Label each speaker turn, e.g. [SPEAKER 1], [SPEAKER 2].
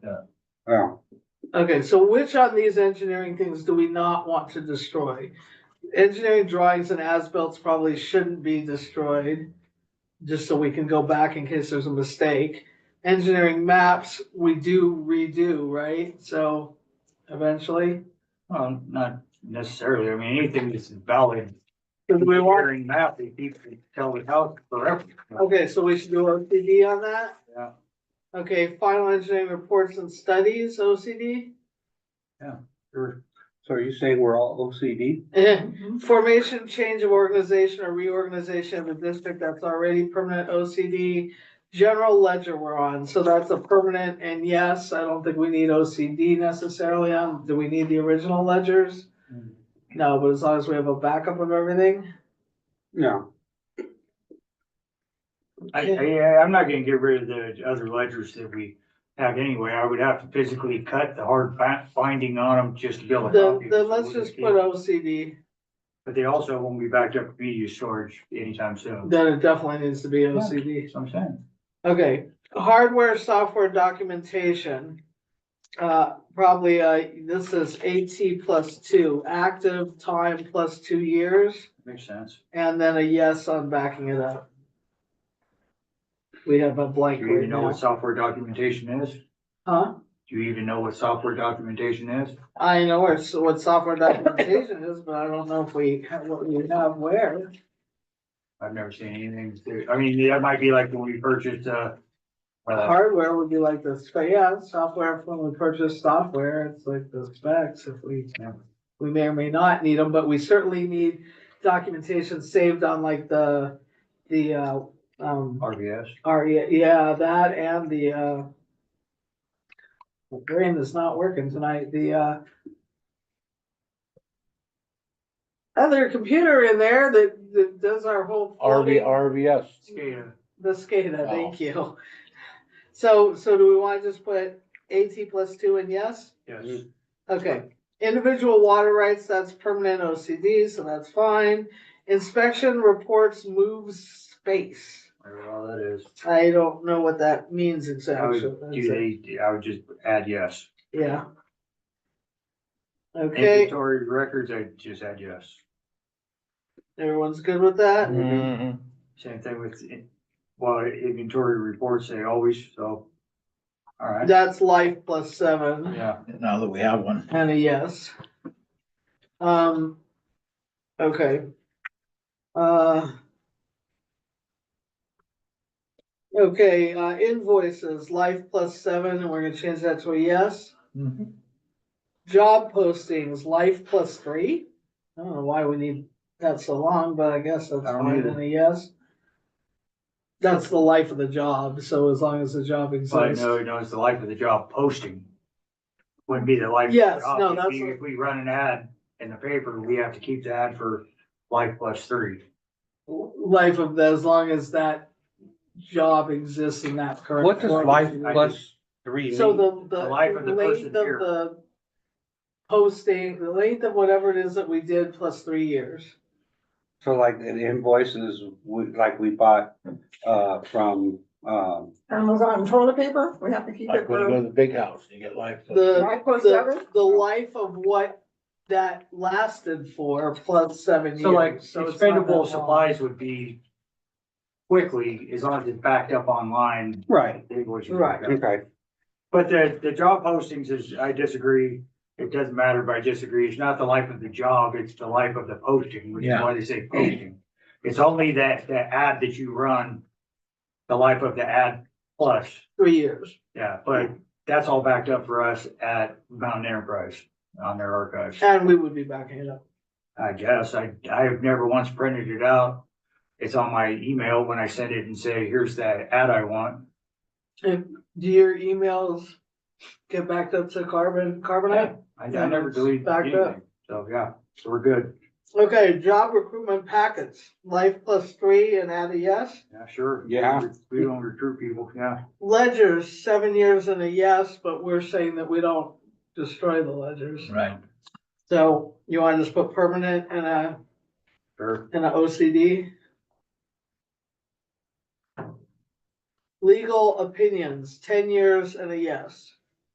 [SPEAKER 1] Yeah,
[SPEAKER 2] Okay, so which on these engineering things do we not want to destroy? Engineering drawings and as-built probably shouldn't be destroyed, just so we can go back in case there's a mistake. Engineering maps, we do redo, right? So eventually,
[SPEAKER 3] Well, not necessarily, I mean, anything that's valid.
[SPEAKER 2] Because we want,
[SPEAKER 3] Hearing map, they keep, they tell the house forever.
[SPEAKER 2] okay, so we should do OCD on that?
[SPEAKER 3] Yeah.
[SPEAKER 2] Okay, final engineering reports and studies, OCD?
[SPEAKER 3] Sure.
[SPEAKER 1] so are you saying we're all OCD?
[SPEAKER 2] Eh, Formation, change of organization or reorganization of a district that's already permanent OCD. General ledger we're on, so that's a permanent, and yes, I don't think we need OCD necessarily on, do we need the original ledgers? No, but as long as we have a backup of everything.
[SPEAKER 1] Yeah,
[SPEAKER 3] I,
[SPEAKER 2] Yeah.
[SPEAKER 3] I, I'm not gonna get rid of the other ledgers that we have anyway, I would have to physically cut the hard fi- finding on them just to build a
[SPEAKER 2] Then,
[SPEAKER 3] copy.
[SPEAKER 2] then let's just put OCD,
[SPEAKER 3] But they also won't be backed up for media storage anytime soon,
[SPEAKER 2] then it definitely needs to be OCD.
[SPEAKER 3] that's what I'm saying.
[SPEAKER 2] Okay, hardware, software documentation. Uh, probably, uh, this is AT plus two, active time plus two years,
[SPEAKER 3] Makes sense.
[SPEAKER 2] and then a yes on backing it up. We have a
[SPEAKER 3] Do
[SPEAKER 2] blank
[SPEAKER 3] you
[SPEAKER 2] right
[SPEAKER 3] even know what
[SPEAKER 2] now.
[SPEAKER 3] software documentation is?
[SPEAKER 2] Huh?
[SPEAKER 3] Do you even know what software documentation is?
[SPEAKER 2] I know where, so what software documentation is, but I don't know if we, have what we have where.
[SPEAKER 3] I've never seen anything, to- I mean, that might be like when we purchased, uh, uh,
[SPEAKER 2] Hardware would be like the spec, yeah, software, when we purchase software, it's like the specs, if we,
[SPEAKER 3] Yeah.
[SPEAKER 2] we may or may not need them, but we certainly need documentation saved on like the, the, uh, um,
[SPEAKER 3] RBS.
[SPEAKER 2] our, yeah, that and the, uh, my brain is not working tonight, the, uh, other computer in there that, that does our whole.
[SPEAKER 1] RV,
[SPEAKER 2] flooding.
[SPEAKER 1] RVS.
[SPEAKER 3] SCADA.
[SPEAKER 2] The SCADA,
[SPEAKER 1] Oh.
[SPEAKER 2] thank you. So, so do we wanna just put AT plus two and yes?
[SPEAKER 3] Yes.
[SPEAKER 2] Okay, individual water rights, that's permanent OCD, so that's fine. Inspection reports moves space.
[SPEAKER 3] Whatever all that is.
[SPEAKER 2] I don't know what that means
[SPEAKER 3] I
[SPEAKER 2] exactly.
[SPEAKER 3] would, do they, I would just add yes.
[SPEAKER 2] Yeah. Okay,
[SPEAKER 3] Inventory records, I'd just add yes.
[SPEAKER 2] everyone's good with that?
[SPEAKER 4] Mm-hmm.
[SPEAKER 3] Same thing with, in- well, inventory reports, they always, so. All right,
[SPEAKER 2] That's life plus seven.
[SPEAKER 3] yeah.
[SPEAKER 4] Now that we have one.
[SPEAKER 2] And a yes. Um, okay. Uh. Okay, uh, invoices, life plus seven, and we're gonna change that to a yes.
[SPEAKER 3] Mm-hmm.
[SPEAKER 4] Mhm.
[SPEAKER 2] Job postings, life plus three. I don't know why we need that so long, but I guess that's
[SPEAKER 3] I don't
[SPEAKER 2] fine
[SPEAKER 3] either.
[SPEAKER 2] and a yes. That's the life of the job, so as long as the job
[SPEAKER 3] But
[SPEAKER 2] exists.
[SPEAKER 3] no, no, it's the life of the job posting. Wouldn't be the life. of the
[SPEAKER 2] Yes,
[SPEAKER 3] job.
[SPEAKER 2] no,
[SPEAKER 3] If
[SPEAKER 2] that's
[SPEAKER 3] we-
[SPEAKER 2] what-
[SPEAKER 3] If we run an ad in the paper, we have to keep the ad for life plus three.
[SPEAKER 2] life of the, as long as that job exists in that current.
[SPEAKER 1] What does
[SPEAKER 2] form.
[SPEAKER 1] life plus three
[SPEAKER 2] So
[SPEAKER 1] mean?
[SPEAKER 2] the, the
[SPEAKER 3] The life of the person
[SPEAKER 2] length of
[SPEAKER 3] here.
[SPEAKER 2] the posting, the length of whatever it is that we did plus three years.
[SPEAKER 1] So like the invoices, we, like we bought, uh, from, um,
[SPEAKER 5] Amazon toilet paper, we have to keep
[SPEAKER 4] Like
[SPEAKER 5] it.
[SPEAKER 4] when you
[SPEAKER 5] for-
[SPEAKER 4] go to the big house, you get life.
[SPEAKER 2] The,
[SPEAKER 5] Life plus
[SPEAKER 2] the,
[SPEAKER 5] seven?
[SPEAKER 2] the life of what that lasted for plus seven years.
[SPEAKER 3] So like
[SPEAKER 2] it's not that
[SPEAKER 3] expendable
[SPEAKER 2] long.
[SPEAKER 3] supplies would be quickly, as long as it's backed up online.
[SPEAKER 1] right,
[SPEAKER 3] they would-
[SPEAKER 2] Right.
[SPEAKER 1] okay,
[SPEAKER 3] But the, the job postings is, I disagree. It doesn't matter, but I disagree. It's not the life of the job, it's the life of the posting, which is
[SPEAKER 4] Yeah.
[SPEAKER 3] why they say posting. It's only that, the ad that you run, the life of the ad plus,
[SPEAKER 2] Three years.
[SPEAKER 3] yeah, but that's all backed up for us at Mountain Enterprise on their archives.
[SPEAKER 2] And we would be backing it up.
[SPEAKER 3] I guess, I, I have never once printed it out. It's on my email when I send it and say, here's that ad I want.
[SPEAKER 2] Do your emails get backed up to carbon, carbonite?
[SPEAKER 3] I, I never delete
[SPEAKER 2] Backed up.
[SPEAKER 3] anything, so yeah, so we're good,
[SPEAKER 2] Okay, job recruitment packets, life plus three and add a yes.
[SPEAKER 3] yeah, sure.
[SPEAKER 1] Yeah.
[SPEAKER 3] We don't recruit people, yeah,
[SPEAKER 2] ledgers, seven years and a yes, but we're saying that we don't destroy the ledgers.
[SPEAKER 4] Right.
[SPEAKER 2] So you want to just put permanent and a,
[SPEAKER 3] sure,
[SPEAKER 2] and a OCD? Legal opinions, ten years and a yes.